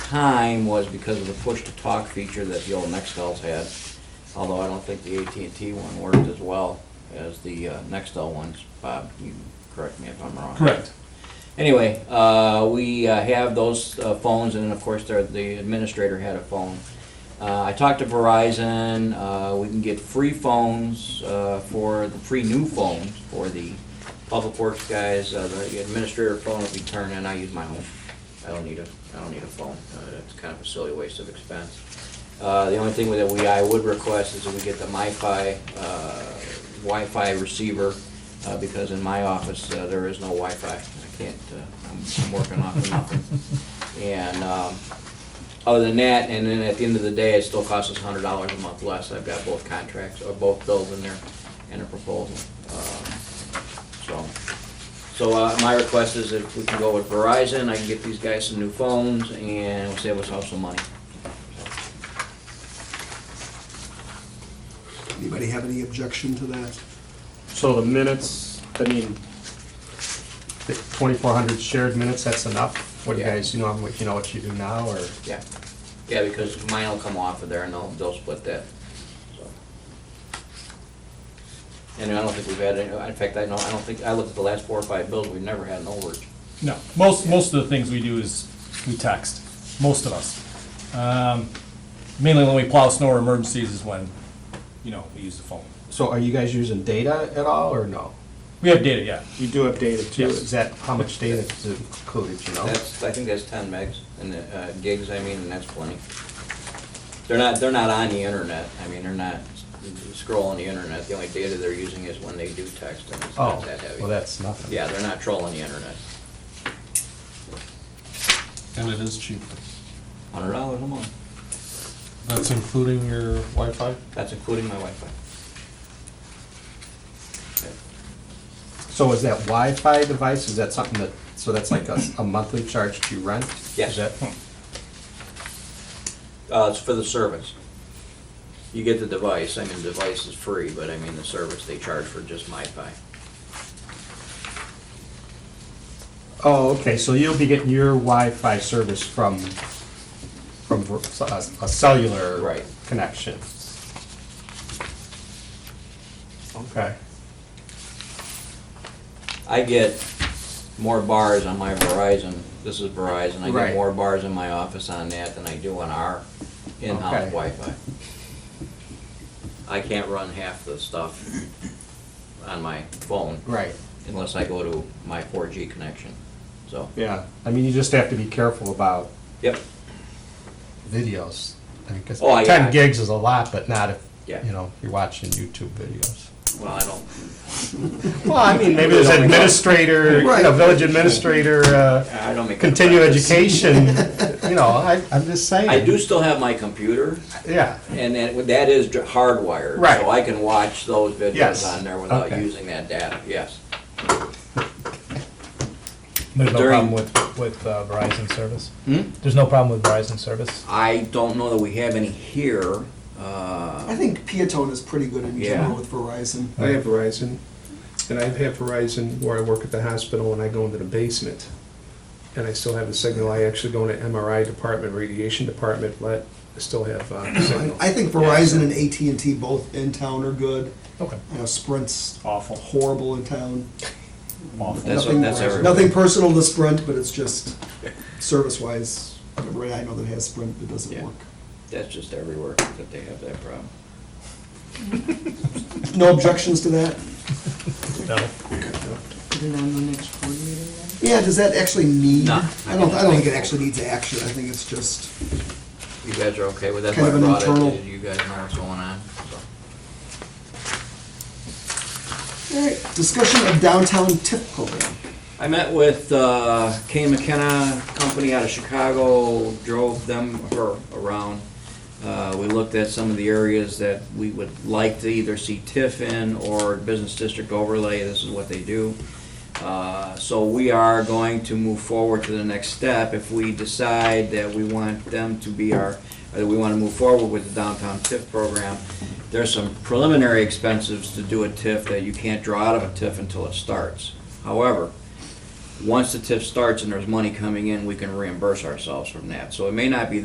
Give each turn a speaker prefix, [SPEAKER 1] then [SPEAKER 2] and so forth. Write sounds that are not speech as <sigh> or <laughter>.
[SPEAKER 1] time was because of the push-to-talk feature that the old Nextels had, although I don't think the AT&T one worked as well as the uh, Nextel ones. Bob, you correct me if I'm wrong.
[SPEAKER 2] Correct.
[SPEAKER 1] Anyway, uh, we uh, have those uh, phones, and of course, there- the administrator had a phone. Uh, I talked to Verizon, uh, we can get free phones uh, for, the free new phones for the public works guys. Uh, The administrator phone will be turned in, I use my own. I don't need a, I don't need a phone. Uh, It's kind of a silly waste of expense. Uh, The only thing that we, I would request is that we get the MiFi, uh, Wi-Fi receiver, uh, because in my office, uh, there is no Wi-Fi. I can't, uh, I'm- I'm working off of nothing. And um, other than that, and then at the end of the day, it still costs us hundred dollars a month less. I've got both contracts, or both bills in there and a proposal. Um, So, so uh, my request is if we can go with Verizon, I can get these guys some new phones, and it'll save us all some money.
[SPEAKER 3] Anybody have any objection to that?
[SPEAKER 2] So the minutes, I mean, twenty-four hundred shared minutes, that's enough? What do you
[SPEAKER 1] Yeah.
[SPEAKER 2] guys, you know, you know what you do now, or?
[SPEAKER 1] Yeah, yeah, because mine will come off of there and they'll, they'll split that, so. And I don't think we've had, any in fact, I know, I don't think, I looked at the last four or five bills, we've never had an overage.
[SPEAKER 4] No, most, most of the things we do is we text, most of us. Um, Mainly when we plow snow or emergencies is when, you know, we use the phone.
[SPEAKER 2] So are you guys using data at all, or no?
[SPEAKER 4] We have data, yeah.
[SPEAKER 2] You do have data too.
[SPEAKER 4] Yes.
[SPEAKER 2] Is that, how much data is included, you know?
[SPEAKER 1] That's, I think that's ten megs, and, uh, gigs, I mean, and that's plenty. They're not, they're not on the internet, I mean, they're not scrolling the internet, the only data they're using is when they do text, and it's
[SPEAKER 2] Oh,
[SPEAKER 1] not that heavy.
[SPEAKER 2] well, that's nothing.
[SPEAKER 1] Yeah, they're not trolling the internet.
[SPEAKER 5] And it is cheap.
[SPEAKER 1] Hundred dollars a month,
[SPEAKER 5] That's including your Wi-Fi?
[SPEAKER 1] that's including my Wi-Fi.
[SPEAKER 2] So is that Wi-Fi device, is that something that, so that's like a, a monthly charge to rent?
[SPEAKER 1] Yes.
[SPEAKER 2] Is that-
[SPEAKER 1] Uh, it's for the service. You get the device, I mean, the device is free, but I mean, the service they charge for just MiFi.
[SPEAKER 2] Oh, okay, so you'll be getting your Wi-Fi service from, from a a cellular.
[SPEAKER 1] Right.
[SPEAKER 2] Connection. Okay.
[SPEAKER 1] I get more bars on my Verizon, this is Verizon, I get
[SPEAKER 2] Right.
[SPEAKER 1] more bars in my office on that than I do on our in-house
[SPEAKER 2] Okay.
[SPEAKER 1] Wi-Fi. I can't run half the stuff on my phone
[SPEAKER 2] Right,
[SPEAKER 1] unless I go to my 4G connection, so,
[SPEAKER 2] yeah, I mean, you just have to be careful about
[SPEAKER 1] yep,
[SPEAKER 2] videos. I mean, 'cause
[SPEAKER 1] Oh, yeah.
[SPEAKER 2] ten gigs is a lot, but not if,
[SPEAKER 1] Yeah.
[SPEAKER 2] you know, you're watching YouTube videos.
[SPEAKER 1] well, I don't,
[SPEAKER 2] Well, I mean, maybe <laughs> there's administrator, you know, village administrator, uh,
[SPEAKER 1] <laughs> I don't make. it a
[SPEAKER 2] continue
[SPEAKER 1] practice.
[SPEAKER 2] education, you know, I, I'm just saying.
[SPEAKER 1] I do still have my computer,
[SPEAKER 2] Yeah,
[SPEAKER 1] And that, that is dr- hardwired.
[SPEAKER 2] Right.
[SPEAKER 1] So I can watch those videos
[SPEAKER 2] Yes.
[SPEAKER 1] on there without
[SPEAKER 2] Okay.
[SPEAKER 1] using that data, yes.
[SPEAKER 6] There's no
[SPEAKER 1] During-
[SPEAKER 6] problem with, with uh, Verizon service?
[SPEAKER 1] Hmm?
[SPEAKER 6] There's no problem with Verizon service?
[SPEAKER 1] I don't know that we have any here. uh,
[SPEAKER 3] Um, I think Peatone is pretty good in
[SPEAKER 1] Yeah.
[SPEAKER 3] general with Verizon.
[SPEAKER 7] I have Verizon, and I have Verizon where I work at the hospital and I go into the basement. And I still have the signal. I actually go into MRI department, radiation department, but I still have uh, signal.
[SPEAKER 3] I think Verizon and AT and T both in town are good.
[SPEAKER 6] Okay.
[SPEAKER 3] You know, Sprint's
[SPEAKER 4] Awful,
[SPEAKER 3] horrible in town.
[SPEAKER 4] awful.
[SPEAKER 1] That's,
[SPEAKER 3] Nothing-
[SPEAKER 1] that's everywhere.
[SPEAKER 3] Nothing personal to Sprint, but it's just service-wise. Everybody I know that has Sprint that doesn't
[SPEAKER 1] Yeah.
[SPEAKER 3] work.
[SPEAKER 1] That's just everywhere that they have that problem.
[SPEAKER 3] No objections to that?
[SPEAKER 6] No.
[SPEAKER 8] Put it on the next board meeting then?
[SPEAKER 3] Yeah, does that actually need?
[SPEAKER 1] No.
[SPEAKER 3] I don't, I don't think it actually needs action. I think it's just.
[SPEAKER 1] You guys are okay with that?
[SPEAKER 3] Kind of an
[SPEAKER 1] That's why I brought it,
[SPEAKER 3] internal-
[SPEAKER 1] You guys know what's going on, so.
[SPEAKER 3] Discussion of downtown TIP program.
[SPEAKER 1] I met with uh, Kay McKenna Company out of Chicago, drove them, her, around. Uh, We looked at some of the areas that we would like to either see TIF in or business district overlay, this is what they do. Uh, So we are going to move forward to the next step if we decide that we want them to be our, or that we want to move forward with the downtown TIF program. There's some preliminary expenses to do a TIF that you can't draw out of a TIF until it starts. However, once the TIF starts and there's money coming in, we can reimburse ourselves from that. So it may not be